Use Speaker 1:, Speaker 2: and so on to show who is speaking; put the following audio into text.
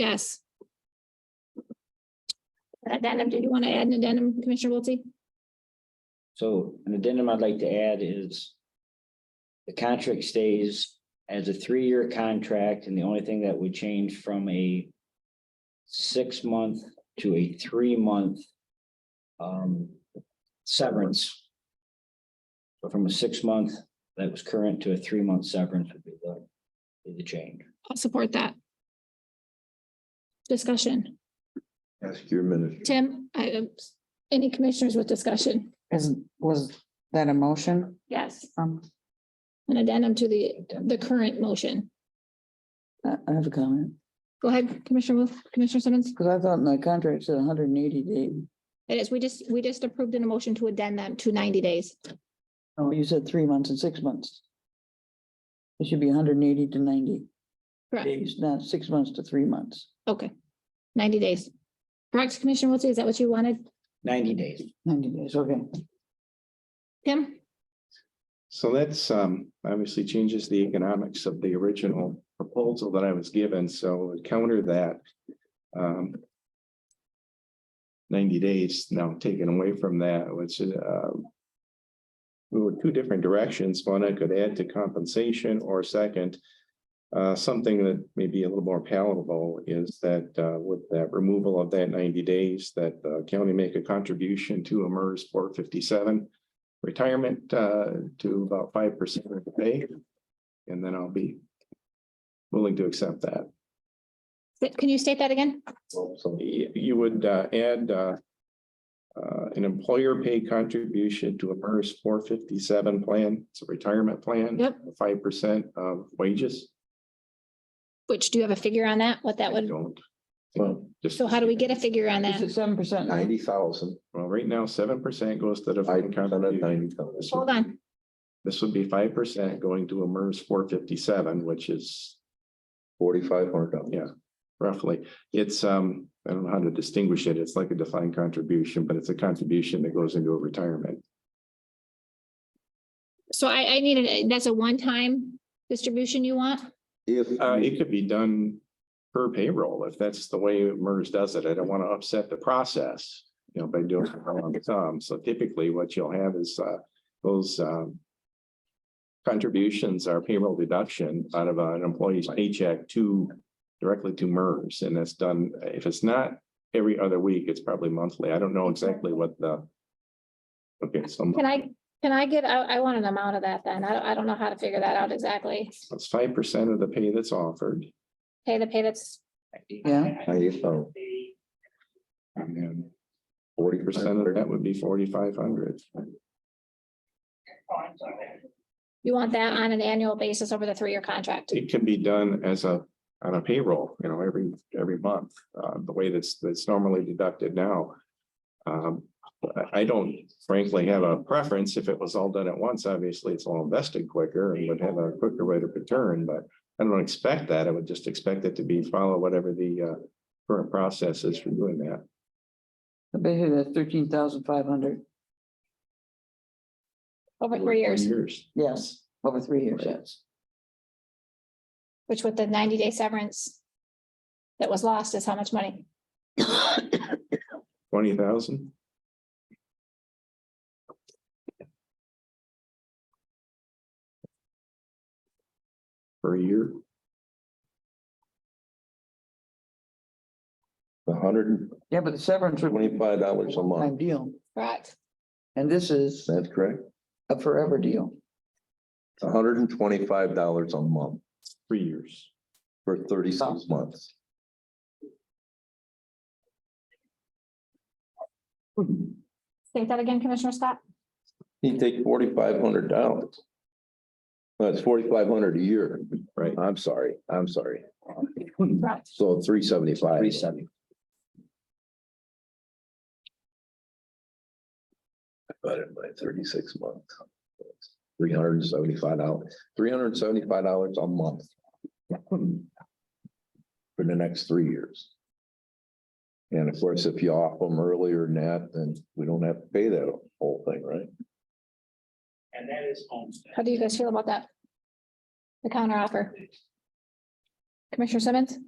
Speaker 1: Yes. Addendum, did you want to add an addendum, Commissioner Wiltie?
Speaker 2: So an addendum I'd like to add is the contract stays as a three-year contract, and the only thing that would change from a six-month to a three-month um, severance. So from a six-month that was current to a three-month severance would be the, be the change.
Speaker 1: I'll support that. Discussion.
Speaker 3: Ask your minister.
Speaker 1: Tim, I, um, any commissioners with discussion?
Speaker 4: Is, was that a motion?
Speaker 1: Yes.
Speaker 4: Um,
Speaker 1: An addendum to the, the current motion.
Speaker 4: I I have a comment,
Speaker 1: Go ahead, Commissioner, Wil- Commissioner Simmons.
Speaker 4: because I thought my contract said hundred and eighty days.
Speaker 1: It is, we just, we just approved an motion to addend them to ninety days.
Speaker 4: Oh, you said three months and six months. It should be hundred and eighty to ninety
Speaker 1: Correct.
Speaker 4: days, not six months to three months.
Speaker 1: Okay. Ninety days. Correct, Commissioner Wiltie, is that what you wanted?
Speaker 2: Ninety days.
Speaker 4: Ninety days, okay.
Speaker 1: Tim?
Speaker 5: So that's um obviously changes the economics of the original proposal that I was given, so counter that. Um. Ninety days now taken away from that, which is uh. We were two different directions. One, I could add to compensation or second. Uh, something that may be a little more palatable is that uh with that removal of that ninety days, that the county make a contribution to a MERS four fifty-seven retirement uh to about five percent of the pay. And then I'll be willing to accept that.
Speaker 1: Can you state that again?
Speaker 5: So you you would uh add uh. Uh, an employer paid contribution to a MERS four fifty-seven plan, it's a retirement plan.
Speaker 1: Yep.
Speaker 5: Five percent of wages.
Speaker 1: Which, do you have a figure on that? What that
Speaker 5: I
Speaker 1: would,
Speaker 5: Don't. Well, just.
Speaker 1: so how do we get a figure on
Speaker 4: Is
Speaker 1: that?
Speaker 4: it seven percent?
Speaker 3: Ninety thousand,
Speaker 5: Well, right now, seven percent goes to the.
Speaker 3: five percent of
Speaker 5: contribution.
Speaker 3: ninety thousand.
Speaker 5: This would
Speaker 1: Hold on.
Speaker 5: This would be five percent going to a MERS four fifty-seven, which is
Speaker 3: Forty-five hundred dollars.
Speaker 5: Yeah. roughly. It's, um, I don't know how to distinguish it. It's like a defined contribution, but it's a contribution that goes into a retirement.
Speaker 1: So I, I needed, that's a one-time distribution you want?
Speaker 3: If,
Speaker 5: Uh,
Speaker 3: you-
Speaker 5: it could be done per payroll if that's the way MERS does it. I don't want to upset the process, you know, by doing it all on some. So typically what you'll have is, uh, those, um, contributions are payroll deduction out of an employee's paycheck to, directly to MERS, and that's done, if it's not every other week, it's probably monthly. I don't know exactly what the okay, so
Speaker 1: Can I, can I get, I, I want an amount of that then. I, don't- I don't know how to figure that out exactly.
Speaker 5: it's five percent of the pay that's offered.
Speaker 1: Pay the pay that's,
Speaker 4: Yeah.
Speaker 3: ninety thousand,
Speaker 5: And then
Speaker 3: forty
Speaker 5: percent of that would be forty-five hundred.
Speaker 1: you want that on an annual basis over the three-year contract?
Speaker 5: It can be done as a, on a payroll, you know, every, every month, uh, the way that's, that's normally deducted now. Um, I- I don't frankly have a preference. If it was all done at once, obviously it's all invested quicker and would have a quicker rate of return, but I don't expect that. I would just expect it to be follow whatever the, uh, current process is for doing that.
Speaker 4: Basically, that's thirteen thousand five hundred,
Speaker 1: Over three years,
Speaker 5: Years.
Speaker 4: yes, over three years, yes.
Speaker 1: which with the ninety-day severance that was lost is how much money?
Speaker 5: Twenty thousand? Per year,
Speaker 3: hundred and
Speaker 4: Yeah, but the severance would be
Speaker 3: twenty-five dollars a
Speaker 4: a
Speaker 3: month,
Speaker 4: lifetime deal,
Speaker 1: Correct.
Speaker 4: and this is
Speaker 3: that's correct?
Speaker 4: a forever deal.
Speaker 3: hundred and twenty-five dollars a month
Speaker 5: three years.
Speaker 3: for thirty-six months.
Speaker 1: State that again, Commissioner Scott?
Speaker 3: You take forty-five hundred dollars. That's forty-five hundred a year.
Speaker 5: Right.
Speaker 3: I'm sorry, I'm sorry.
Speaker 1: Correct.
Speaker 3: So three seventy-five.
Speaker 2: Three seventy.
Speaker 3: Divided by thirty-six months. Three hundred and seventy-five dollars, three hundred and seventy-five dollars a month. For the next three years. And of course, if you off them earlier than that, then we don't have to pay that whole thing, right?
Speaker 2: And that is homestead.
Speaker 1: How do you guys feel about that? The counter offer? Commissioner Simmons?